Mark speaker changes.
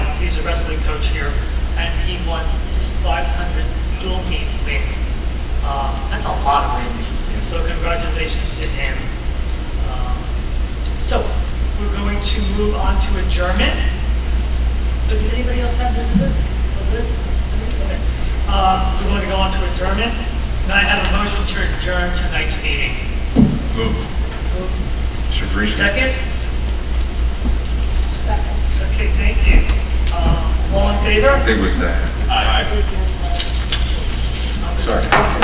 Speaker 1: a wrestling coach here, and he won his 500th dual meet win. Uh, that's a lot of wins. So congratulations to him. Um, so we're going to move on to adjournment. Does anybody else have business? Okay. Uh, we're going to go on to adjournment. Can I have a motion to adjourn tonight's meeting?
Speaker 2: Moved. Mr. Green?
Speaker 1: Second? Okay, thank you. Um, All in favor?
Speaker 2: I think it was that. Aye. Sorry.